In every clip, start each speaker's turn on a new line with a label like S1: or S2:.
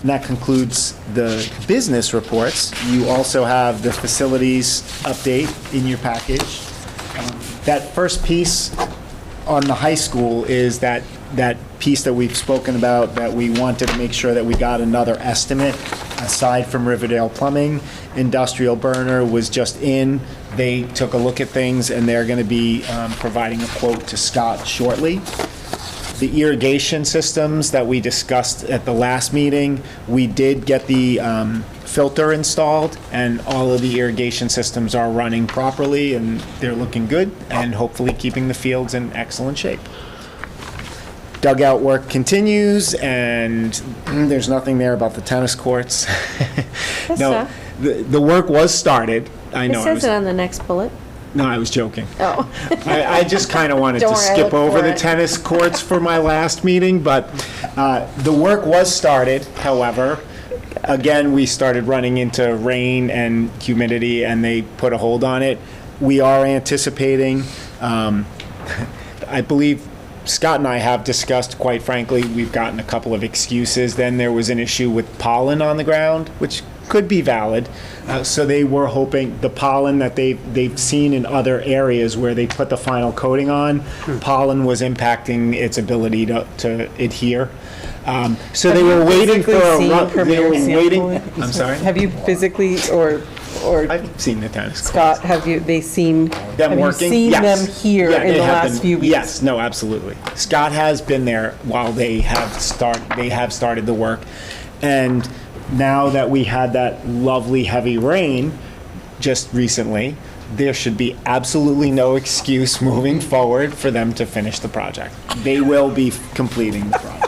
S1: And that concludes the business reports. You also have the facilities update in your package. Um, That first piece on the high school is that, that piece that we've spoken about, that we wanted to make sure that we got another estimate, aside from Riverdale Plumbing. Industrial Burner was just in, they took a look at things, and they're gonna be um, providing a quote to Scott shortly. The irrigation systems that we discussed at the last meeting, we did get the um, filter installed, and all of the irrigation systems are running properly, and they're looking good, and hopefully keeping the fields in excellent shape. Dugout work continues, and mm, there's nothing there about the tennis courts.
S2: Yes,
S1: No,
S2: sir.
S1: the, the work was started. I
S2: It
S1: know, I
S2: says it
S1: was,
S2: on the next bullet.
S1: no, I was joking.
S2: Oh,
S1: I, I just kind of wanted to
S2: Don't worry, I
S1: skip
S2: looked
S1: over
S2: for
S1: the
S2: it.
S1: tennis courts for my last meeting, but uh, the work was started, however. Again, we started running into rain and humidity, and they put a hold on it. We are anticipating, um, I believe Scott and I have discussed, quite frankly, we've gotten a couple of excuses. Then there was an issue with pollen on the ground, which could be valid. Uh, so they were hoping the pollen that they, they've seen in other areas where they put the final coating on, pollen was impacting its ability to, to adhere. Um, so they were waiting for a
S3: Physically
S1: run.
S3: seen
S1: They were
S3: Premier
S1: waiting.
S3: sample?
S1: I'm sorry.
S3: Have you physically, or, or
S1: I've seen the tennis court.
S3: Scott, have you, they seen,
S1: them
S3: have you
S1: working.
S3: seen
S1: Yes.
S3: them here
S1: Yeah,
S3: in
S1: they
S3: the
S1: have
S3: last
S1: been-
S3: few weeks?
S1: Yes, no, absolutely. Scott has been there while they have start, they have started the work. And now that we had that lovely heavy rain just recently, there should be absolutely no excuse moving forward for them to finish the project. They will be completing the project.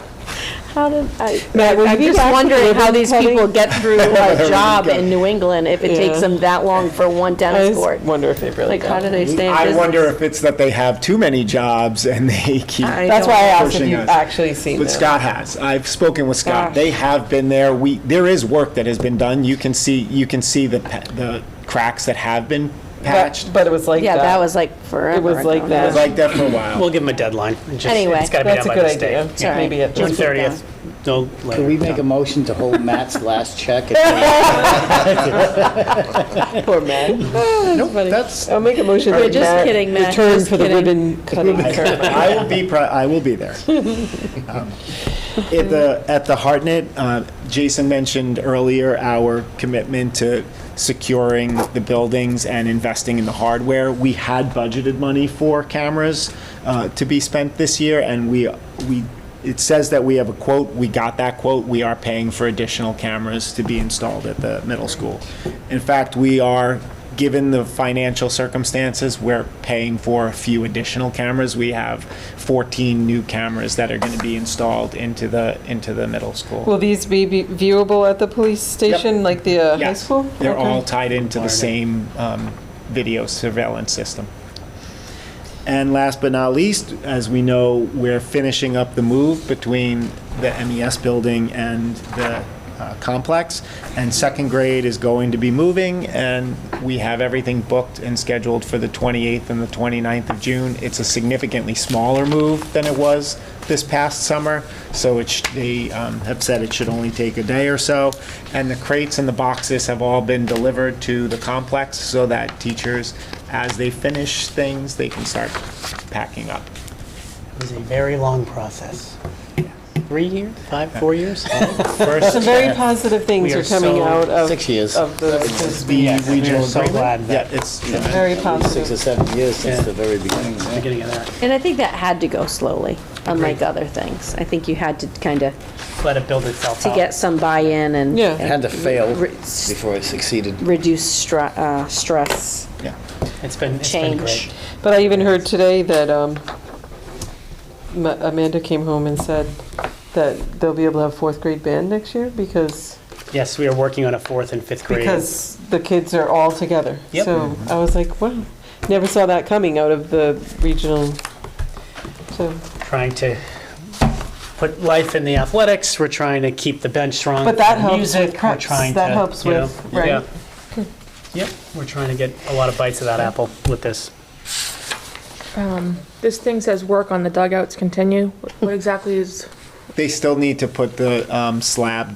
S2: how did, I,
S3: Matt, were
S2: I'm
S3: you
S2: just
S3: back from
S2: wondering how these
S3: ribbon
S2: people get through a job
S1: go.
S2: in New England if it takes
S3: Yeah.
S2: them that long for one
S3: I
S2: tennis
S3: just
S2: court.
S3: wonder if they really
S2: Like, how
S3: got
S2: do
S3: it.
S2: they stay in
S1: I
S2: business?
S1: wonder if it's that they have too many jobs and they keep.
S2: I
S3: That's why I asked if
S1: pushing
S3: you've
S1: us.
S3: actually seen them.
S1: But Scott has. I've spoken with Scott.
S3: Gosh.
S1: They have been there. We, there is work that has been done. You can see, you can see the, pa- the cracks that have been
S3: But,
S1: patched.
S3: but it was like
S2: Yeah,
S3: that.
S2: that was like forever.
S3: was
S2: ago.
S3: like that.
S1: It's like that for a while.
S4: We'll give them a deadline. It's just-
S2: Anyway.
S4: It's gotta be
S3: That's
S4: done
S3: a
S4: by
S3: good
S4: the state.
S3: idea.
S2: all right.
S3: Maybe at
S2: Just
S4: June
S3: the
S2: keep going.
S4: thirtieth, no later.
S5: Can we make a motion to hold Matt's last check?
S3: poor man.
S1: Nope, that's,
S3: I'll make a motion.
S2: We're
S3: that
S2: just
S3: Matt
S2: kidding, Matt,
S3: Return
S2: just
S3: for the
S2: kidding.
S3: ribbon cutting ceremony.
S1: I will be, pri- I will be there. Um, At the, at the Hartnett, uh, Jason mentioned earlier our commitment to securing the buildings and investing in the hardware. We had budgeted money for cameras uh, to be spent this year, and we, we, it says that we have a quote, we got that quote, we are paying for additional cameras to be installed at the middle school. In fact, we are given the financial circumstances, we're paying for a few additional cameras. We have 14 new cameras that are going to be installed into the, into the middle school.
S3: Will these be be viewable at the police station, like the uh, high
S1: Yes,
S3: school?
S1: They're
S3: Okay.
S1: all tied into the same um, video surveillance system. And last but not least, as we know, we're finishing up the move between the MES building and the uh, complex. And second grade is going to be moving, and we have everything booked and scheduled for the 28th and the 29th of June. It's a significantly smaller move than it was this past summer, so it, sh- they um, have said it should only take a day or so. And the crates and the boxes have all been delivered to the complex so that teachers as they finish things, they can start packing up.
S4: It was a very long process. Three years, five, four years?
S1: First, uh,
S3: Some very positive things
S4: We
S3: are
S4: are
S3: coming
S4: so-
S3: out of.
S5: six years.
S3: Of the, this
S1: the
S4: Yes, we
S1: regional
S4: are so
S1: agreement.
S4: glad that-
S1: Yeah, it's,
S3: very
S5: Six or
S3: positive.
S5: seven years since the very beginning. yeah.
S4: Beginning of that.
S2: And I think that had to go slowly, unlike other things. I think you had to kind of,
S4: Let it build itself
S2: to
S4: out.
S2: get some buy-in and.
S3: Yeah.
S5: It had to fail
S2: Re-
S5: before it succeeded.
S2: Reduce stra- uh, stress,
S1: yeah.
S4: It's been, it's been
S2: change.
S4: great.
S3: But I even heard today that um, Ma- Amanda came home and said that they'll be able to have fourth grade band next year because
S4: Yes, we are working on a fourth and fifth grade.
S3: because the kids are all together.
S4: Yep.
S3: So I was like, wow, never saw that coming out of the regional. So,
S4: Trying to put life in the athletics. We're trying to keep the bench strong.
S3: But that
S4: for
S3: helps
S4: music.
S3: with
S4: We're
S3: preps.
S4: trying
S3: That
S4: to,
S3: helps
S4: you know,
S3: with- right.
S4: yeah. Yep, we're trying to get a lot of bites of that apple with this.
S6: This thing says work on the dugouts continue. What exactly is,
S1: They still need to put the um, slab